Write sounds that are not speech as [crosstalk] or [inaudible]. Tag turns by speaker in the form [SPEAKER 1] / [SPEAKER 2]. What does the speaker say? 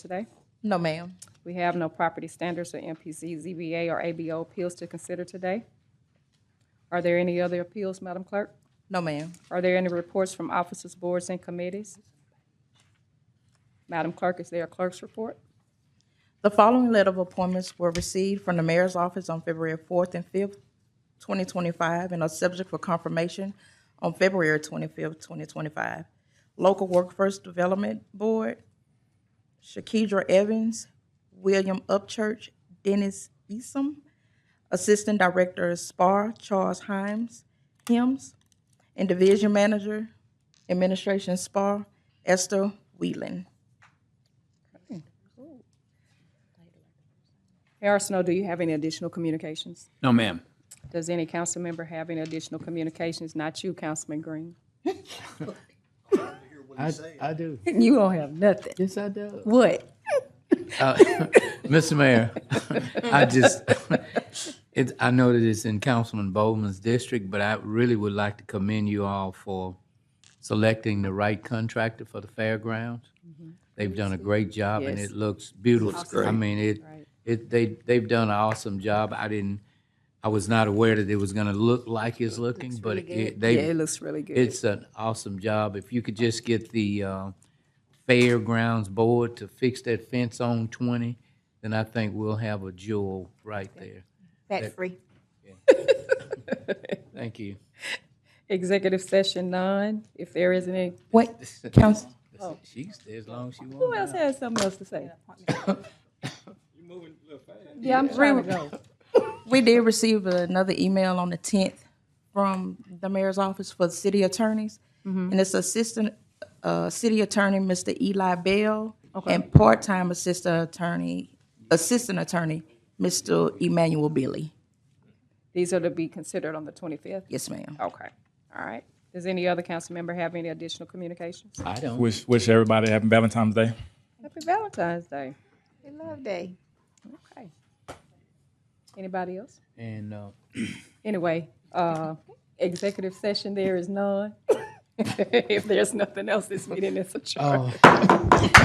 [SPEAKER 1] today?
[SPEAKER 2] No, ma'am.
[SPEAKER 1] We have no property standards or MPC, ZBA, or ABO appeals to consider today. Are there any other appeals, Madam Clerk?
[SPEAKER 2] No, ma'am.
[SPEAKER 1] Are there any reports from officers, boards, and committees? Madam Clerk, is there a clerk's report?
[SPEAKER 2] The following letter of appointments were received from the mayor's office on February fourth and fifth, twenty twenty-five, and are subject for confirmation on February twenty-fifth, twenty twenty-five. Local Workforce Development Board, Shakidra Evans, William Upchurch, Dennis Easom, Assistant Director of SPAR, Charles Himes, Hims, and Division Manager, Administration SPAR, Esther Wheelan.
[SPEAKER 1] Mayor Snow, do you have any additional communications?
[SPEAKER 3] No, ma'am.
[SPEAKER 1] Does any council member have any additional communications? Not you, Councilman Green.
[SPEAKER 4] I, I do.
[SPEAKER 5] You don't have nothing.
[SPEAKER 4] Yes, I [laughs] do.
[SPEAKER 5] What?
[SPEAKER 4] Mr. Mayor, I just, it, I know that it's in Councilman Bowman's district, but I really would like to commend you all for selecting the right contractor for the fairgrounds. They've done a great job and
[SPEAKER 5] Mm-hmm. Yes.
[SPEAKER 4] it looks beautiful. I mean, it, it, they, they've done an awesome job. I didn't, I was not aware that it was gonna look like it's looking, but it, they,
[SPEAKER 5] Yeah, it looks really good.
[SPEAKER 4] It's an awesome job. If you could just get the uh, Fairgrounds Board to fix that fence on 20, then I think we'll have a jewel right there.
[SPEAKER 5] Tax free.
[SPEAKER 4] Thank you. [laughs]
[SPEAKER 1] Executive session none. If there isn't any,
[SPEAKER 2] What, Council?
[SPEAKER 4] She's there as long as she
[SPEAKER 1] who
[SPEAKER 4] wants.
[SPEAKER 1] else has something else to say? You're moving a little fast. Yeah, I'm trying to go.
[SPEAKER 2] We did receive another email on the tenth from the mayor's office for the city attorneys. And it's assistant, uh, city attorney, Mr. Eli Bell, and part-time assistant attorney, assistant attorney, Mr. Emmanuel Billy.
[SPEAKER 1] These are to be considered on the 25th?
[SPEAKER 2] Yes, ma'am.
[SPEAKER 1] Okay, all right. Does any other council member have any additional communications?
[SPEAKER 4] I don't.
[SPEAKER 6] Wish wish everybody happy Valentine's Day.
[SPEAKER 1] Happy Valentine's Day.
[SPEAKER 5] We love day.
[SPEAKER 1] Okay. Anybody else?
[SPEAKER 4] And uh,
[SPEAKER 1] Anyway, uh, executive session, [laughs] there is none. If there's nothing else, this meeting is adjourned.